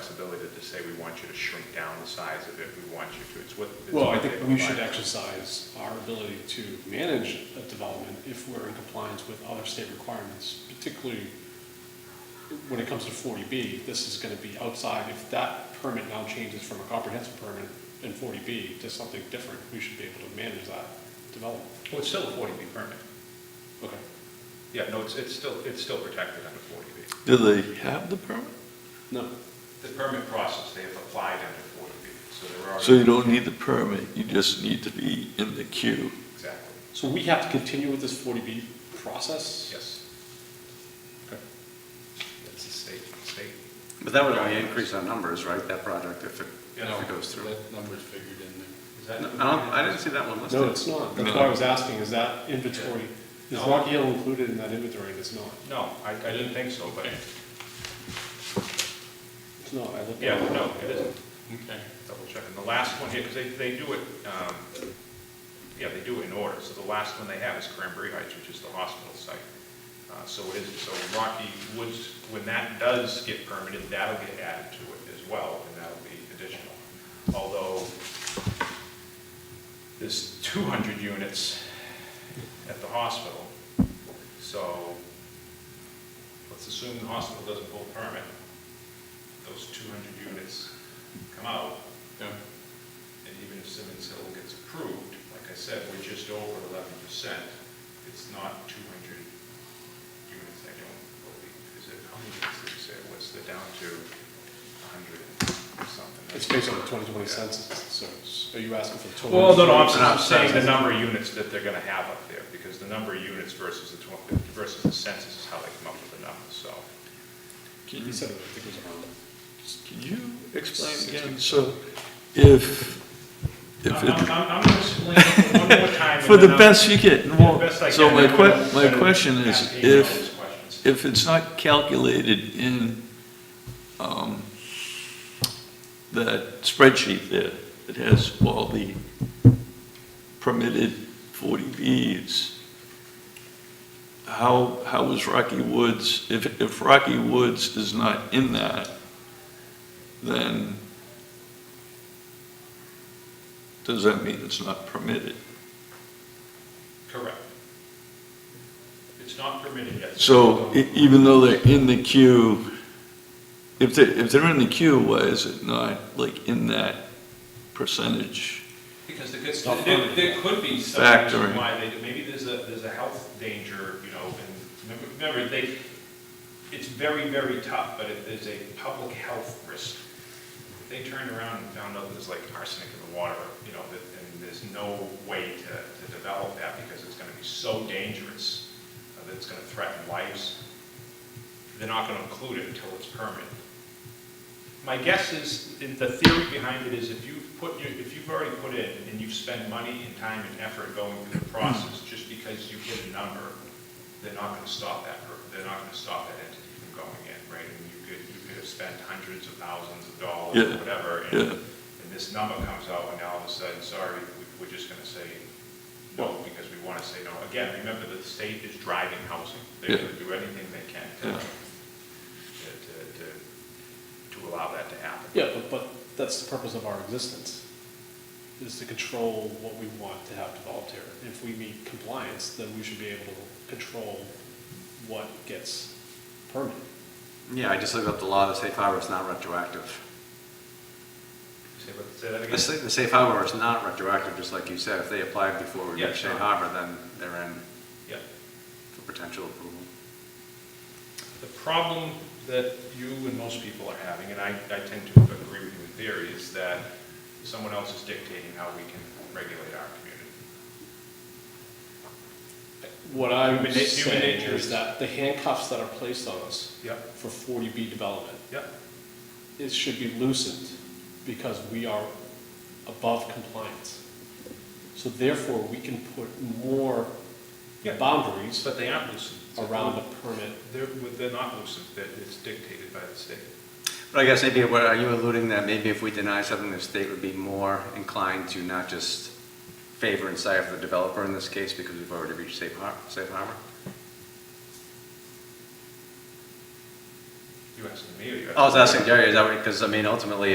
flexibility to say, we want you to shrink down the size of it, we want you to, it's what. it's Well, I what they think we should provide. exercise our ability to manage a development if we're in compliance with other state requirements, particularly when it comes to 40B, this is going to be outside, if that permit now changes from a comprehensive permit in 40B to something different, we should be able to manage that development. Well, it's still a forty B permit. Okay. Yeah, no, it's, it's still, it's still protected under forty B. Do they have the permit? No, The permit process, they have applied under forty B, so there are. So you don't need the permit, you just need to be in the queue. Exactly, so we have to continue with this 40B process? yes. Okay. That's the state, state. But that would only increase our numbers, right, that project, if it, if it goes through? That number's figured in there. Is I that- don't, I didn't see that one listed. No, it's not. That's why I was asking, is that inventory, is No. Rocky Hill included in that inventory? And it's not. No, I, I didn't think so, but, It's not. I looked. at yeah, it. no, it isn't. Okay. Double checking. The last one here, because they, they do it, um, yeah, they do it in order. So the last one they have is Cranberry Heights, which is the hospital site. Uh, So it is, so Rocky Woods, when that does get permitted, that'll get added to it as well, and that'll be additional. Although there's 200 units at the hospital, so let's assume the hospital doesn't pull a permit. Those 200 units come out, Yeah. and even if Simmons Hill gets approved, like I said, we're just over eleven percent. It's not two hundred units, I don't believe. Is it, how many units did you say it was? They're down to hundred and something. It's based on the 2020 census, so it's- are you asking for the total? Well, no, no, I'm I'm I'm saying the saying- number of units that they're gonna have up there, because the number of units versus the twen- versus the census is how they come up with the numbers, so. Can He you, said it, I think it was around. can you explain again? 60%. So if, if I'm, I'm, it, I'm gonna explain it one more time. and for the then I'm- best you get, and the won't- best I so can, my I'm que, gonna my send question is, Pat Hayes all if, those questions. if it's not calculated in um, that spreadsheet there that has all the permitted 40Bs, how, how is Rocky Woods, if, if Rocky Woods is not in that, then does that mean it's not permitted? Correct. It's not permitted yet. So e- even though they're in the queue, if they, if they're in the queue, why is it not like in that percentage? Because there could, Stop there, funding. there could be some reason Factoring. why they, maybe there's a, there's a health danger, you know, and remember- remember, they, it's very, very tough, but if there's a public health risk, if they turned around and found out there's like arsenic in the water, you know, that, and there's no way to, to develop that because it's gonna be so dangerous, uh, that it's gonna threaten lives, they're not gonna include it until it's permitted. My guess is, in the theory behind it is if you've put, your- if you've already put in and you've spent money and time and effort going through the process, just because you hit a number, they're not gonna stop that, per- they're not gonna stop that entity from going in, right? And you could, you could have spent hundreds of thousands of dollars or Yeah, whatever, and, yeah. and this number comes out, and all of a sudden, sorry, we- we're just gonna say no, because we wanna say no. Again, remember that the state is driving housing. They're Yeah. gonna do anything they can to, Yeah. to- to, to, to allow that to happen. Yeah, but, but that's the purpose of our existence, is to control what we want to have developed here. If we meet compliance, then we should be able to control what gets permitted. Yeah, I just looked up the law, the safe harbor is not retroactive. Say what- say that The again? sa- the safe harbor is not retroactive, just like you said, if they applied before we Yeah, reached sure. safe harbor, then they're in Yeah. for potential approval. The problem that you and most people are having, and I, I tend to agree with you in theory, is that someone else is dictating how we can regulate our community. What I'm Human na- human saying nature is- is that the handcuffs that are placed on us Yep, for 40B development, yep. it should be loosened because we are above compliance. So therefore, we can put more Yeah. boundaries But they aren't loosened. around the permit. They're, they're not loosened, that it's dictated by the state. But I guess maybe, what, are you alluding that maybe if we deny something, the state would be more inclined to not just favor and side for the developer in this case, because we've already reached safe har, safe harbor? You You asking me or you asking? I was asking Jerry, is that, because I mean, ultimately,